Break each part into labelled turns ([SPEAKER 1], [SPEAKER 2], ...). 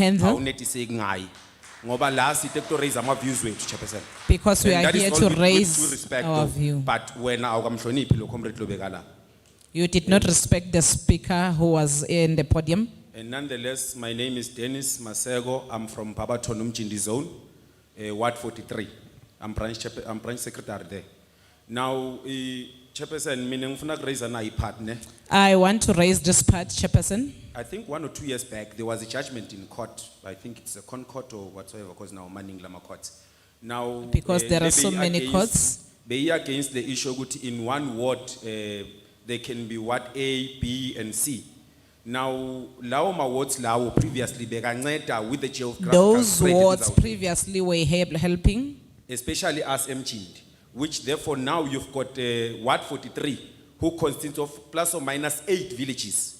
[SPEAKER 1] handle
[SPEAKER 2] awunetiseki ngaye ngoba la site kuto raise ama views wethu chairperson
[SPEAKER 1] because we
[SPEAKER 2] And
[SPEAKER 1] are
[SPEAKER 2] that is
[SPEAKER 1] here
[SPEAKER 2] all
[SPEAKER 1] to
[SPEAKER 2] with- with full
[SPEAKER 1] raise
[SPEAKER 2] respect
[SPEAKER 1] our
[SPEAKER 2] of-
[SPEAKER 1] view.
[SPEAKER 2] but wena awukamhloniphi lo comrade lobeka la
[SPEAKER 1] You did not respect the speaker who was in the podium.
[SPEAKER 2] and nonetheless my name is dennis maseko i'm from barberton umjindi zone uh, ward 43 i'm branch, chairpe- I'm branch secretary there now i chairperson mina ngifuna kuraise na ipart ne
[SPEAKER 1] I want to raise this part, Chairperson.
[SPEAKER 2] i think one or two years back there was a judgment in court i think it's a concourt or whatsoever because now maningi lama courts now
[SPEAKER 1] Because
[SPEAKER 2] eh,
[SPEAKER 1] there are
[SPEAKER 2] they
[SPEAKER 1] so
[SPEAKER 2] be
[SPEAKER 1] many
[SPEAKER 2] against-
[SPEAKER 1] courts.
[SPEAKER 2] they are against the issue ukuthi in one ward eh, there can be ward a b and c now lawo ma-wards lawo previously bekanceda with the geographical
[SPEAKER 1] Those
[SPEAKER 2] spread
[SPEAKER 1] wards
[SPEAKER 2] without-
[SPEAKER 1] previously were help- helping,
[SPEAKER 2] especially us emjindi which therefore now you've got uh, ward 43 who consists of plus or minus eight villages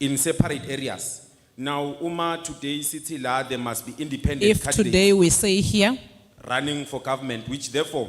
[SPEAKER 2] in separate areas now uma today city la there must be independent
[SPEAKER 1] if
[SPEAKER 2] candidates
[SPEAKER 1] today we say here,
[SPEAKER 2] running for government which therefore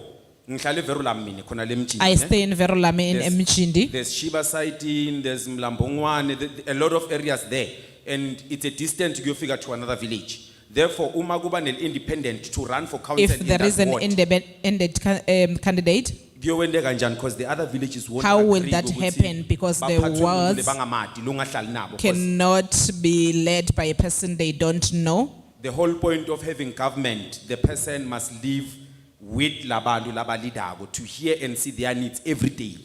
[SPEAKER 2] ngihlale verula mina khona le mjindi
[SPEAKER 1] I
[SPEAKER 2] ne?
[SPEAKER 1] stay in Verolame in
[SPEAKER 2] There's-
[SPEAKER 1] Mchindi.
[SPEAKER 2] There's Shiba Saitin, there's Mlambongwane, th- th- a lot of areas there. And it's a distance you figure to another village. Therefore, umaguba nel independent to run for council
[SPEAKER 1] If
[SPEAKER 2] in
[SPEAKER 1] there is
[SPEAKER 2] that
[SPEAKER 1] an
[SPEAKER 2] ward.
[SPEAKER 1] independent um, candidate,
[SPEAKER 2] Kuyowendeka kanjani? Because the other villages won't.
[SPEAKER 1] How will
[SPEAKER 2] agree
[SPEAKER 1] that
[SPEAKER 2] ukuthi
[SPEAKER 1] happen? Because the
[SPEAKER 2] baphathwe
[SPEAKER 1] wards
[SPEAKER 2] nguhulumende bangamadi, lungahlali nabo. 'Cause
[SPEAKER 1] cannot be led by a person they don't know.
[SPEAKER 2] The whole point of having government, the person must live with labantu labalidako to hear and see their needs every day.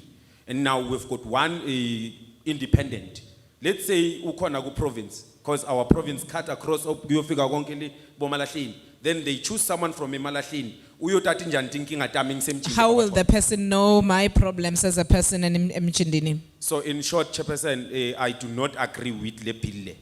[SPEAKER 2] And now we've got one eh, independent. Let's say ukhona ku province, because our province cut across up kuyofika konke le boMalahleni. Then they choose someone from eMalahleni. Uyothatha njani tinkinga tami ngisemjini.
[SPEAKER 1] How will the person know my problems as a person in Mchindini?
[SPEAKER 2] So in short, Chairperson, eh, I do not agree with le bill le.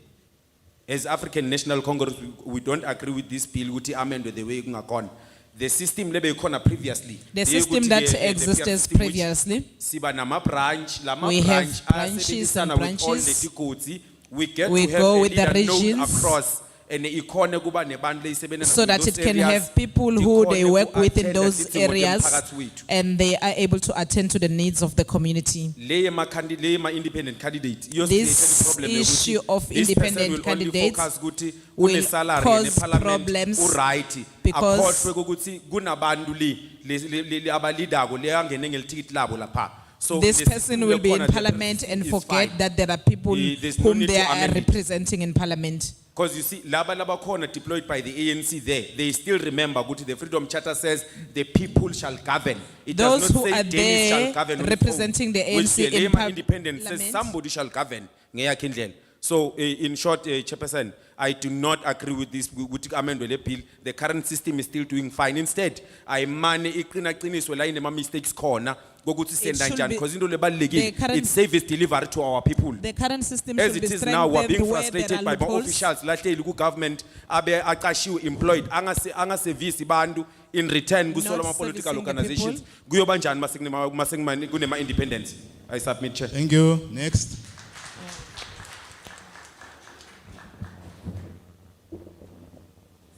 [SPEAKER 2] As African National Congress, we- we don't agree with this bill, uti amendwe the way kungakona. The system lebe ikona previously.
[SPEAKER 1] The
[SPEAKER 2] eh, Leyekuthi
[SPEAKER 1] system
[SPEAKER 2] le-
[SPEAKER 1] that
[SPEAKER 2] le- le-
[SPEAKER 1] exists
[SPEAKER 2] system which
[SPEAKER 1] previously.
[SPEAKER 2] Siba nama branch, lama
[SPEAKER 1] We have
[SPEAKER 2] branch.
[SPEAKER 1] branches and
[SPEAKER 2] asebenzisana with all
[SPEAKER 1] branches.
[SPEAKER 2] the tikoti. We get to
[SPEAKER 1] We
[SPEAKER 2] have
[SPEAKER 1] go
[SPEAKER 2] a
[SPEAKER 1] with the
[SPEAKER 2] leader known
[SPEAKER 1] regions.
[SPEAKER 2] across. And ikone kuba nebantu leyisebenza
[SPEAKER 1] So
[SPEAKER 2] with
[SPEAKER 1] that it
[SPEAKER 2] those
[SPEAKER 1] can
[SPEAKER 2] areas.
[SPEAKER 1] have people who they
[SPEAKER 2] Tikhone
[SPEAKER 1] work with in
[SPEAKER 2] ku-attenda
[SPEAKER 1] those
[SPEAKER 2] tidzingo
[SPEAKER 1] areas
[SPEAKER 2] temphakatsi wethu.
[SPEAKER 1] and they are able to attend to the needs of the community.
[SPEAKER 2] leye ma candidate, leye ma independent candidate. iyo
[SPEAKER 1] This
[SPEAKER 2] silethe problem yokuthi
[SPEAKER 1] issue of
[SPEAKER 2] this person
[SPEAKER 1] independent
[SPEAKER 2] will only
[SPEAKER 1] candidates
[SPEAKER 2] focus ukuthi
[SPEAKER 1] will
[SPEAKER 2] une-salary
[SPEAKER 1] cause
[SPEAKER 2] ne-parliament
[SPEAKER 1] problems
[SPEAKER 2] u-right.
[SPEAKER 1] because-
[SPEAKER 2] Akhohlwe kokuthi kunabantu le- le- le- le- le- abalidako leyangene ngelithikithi labo lapha. So
[SPEAKER 1] This
[SPEAKER 2] le-
[SPEAKER 1] person will be in
[SPEAKER 2] lekhona le-
[SPEAKER 1] parliament and
[SPEAKER 2] is
[SPEAKER 1] forget
[SPEAKER 2] fine.
[SPEAKER 1] that there are people
[SPEAKER 2] Eh, there's no
[SPEAKER 1] whom
[SPEAKER 2] need
[SPEAKER 1] they
[SPEAKER 2] to
[SPEAKER 1] are
[SPEAKER 2] amend it.
[SPEAKER 1] representing in parliament.
[SPEAKER 2] Because you see, laba laba khona deployed by the ANC there, they still remember ukuthi the Freedom Charter says the people shall govern. It does
[SPEAKER 1] Those
[SPEAKER 2] not
[SPEAKER 1] who
[SPEAKER 2] say
[SPEAKER 1] are
[SPEAKER 2] Dennis
[SPEAKER 1] there
[SPEAKER 2] shall govern. on his own,
[SPEAKER 1] representing the
[SPEAKER 2] which
[SPEAKER 1] ANC
[SPEAKER 2] the
[SPEAKER 1] in
[SPEAKER 2] Lema
[SPEAKER 1] par-
[SPEAKER 2] Independent says
[SPEAKER 1] parliament.
[SPEAKER 2] somebody shall govern ngeyakhe indlela. So eh, in short, eh, Chairperson, I do not agree with this ukuthi amendwe le bill. The current system is still doing fine. Instead, ayimane iqina qiniswe la inema mistakes khona kokuthi
[SPEAKER 1] It
[SPEAKER 2] senza
[SPEAKER 1] should
[SPEAKER 2] njani
[SPEAKER 1] be-
[SPEAKER 2] because into
[SPEAKER 1] the
[SPEAKER 2] lebalulekile
[SPEAKER 1] current-
[SPEAKER 2] it's service delivery to our people.
[SPEAKER 1] The current system
[SPEAKER 2] As
[SPEAKER 1] should
[SPEAKER 2] it
[SPEAKER 1] be
[SPEAKER 2] is now, we're being
[SPEAKER 1] strengthened where there
[SPEAKER 2] frustrated by
[SPEAKER 1] are
[SPEAKER 2] more
[SPEAKER 1] loopholes.
[SPEAKER 2] officials, lahleli ku-government, abe aqashiwe employed, angase, angasevisi bantu, in return, kusolwa ama-political
[SPEAKER 1] servicing the
[SPEAKER 2] organizations. Kuyoba njani mase kunema, mase kunema- kunema-independence? I submit, Chair.
[SPEAKER 3] Thank you. Next.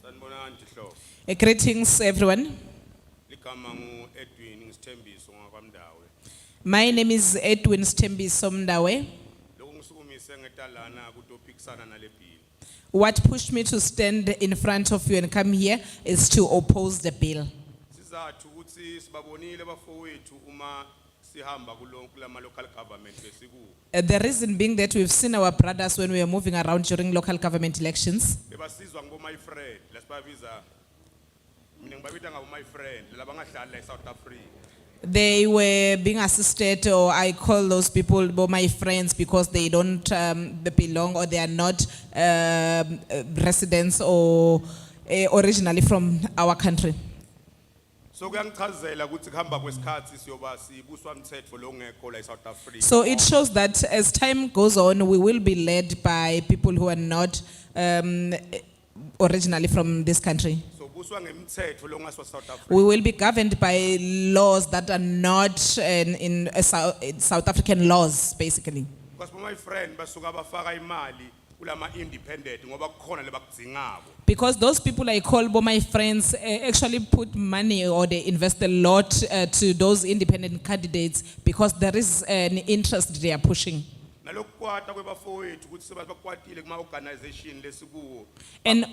[SPEAKER 4] Sanibonani Tihlo.
[SPEAKER 1] Uh, Greetings, everyone.
[SPEAKER 4] Ligama ngu Edwin ngisithembiso ngakwamdawe.
[SPEAKER 1] My name is Edwin Stembi Somdawe.
[SPEAKER 4] Lokhu ngisukumise ngetalana kutophikisana nale bill.
[SPEAKER 1] What pushed me to stand in front of you and come here is to oppose the bill.
[SPEAKER 4] Sizathu ukuthi sibabonile bafowethu uma sihamba kulonke lama local government besiku.
[SPEAKER 1] Uh, The reason being that we've seen our brothers when we were moving around during local government elections.
[SPEAKER 4] Bebasizwa ngoba my friend, lasibabiza. Mina ngibabita ngabo my friend labangahlala e South Africa.
[SPEAKER 1] They were being assisted, or I call those people bo- my friends because they don't um, they belong or they are not um, uh, residents or uh, originally from our country.
[SPEAKER 4] So kuyangichazela ukuthi kuhamba kwesikhathi siyoba sibuswa umthetho longekho la e South Africa.
[SPEAKER 1] So it shows that as time goes on, we will be led by people who are not um, originally from this country.
[SPEAKER 4] So buswa ngemthetho longaswa South Africa.
[SPEAKER 1] We will be governed by laws that are not in, in uh, Sou- in South African laws, basically.
[SPEAKER 4] Because my friend basuka bafaka imali kulama independent ngoba kukhona lebakudzingako.
[SPEAKER 1] Because those people I call bo- my friends eh, actually put money or they invest a eh, lot uh, to those independent candidates because there is an interest they are pushing.
[SPEAKER 4] nalokukwata kwebafowethu ukuthi sebakwatile kuma organization lesikuwo
[SPEAKER 1] And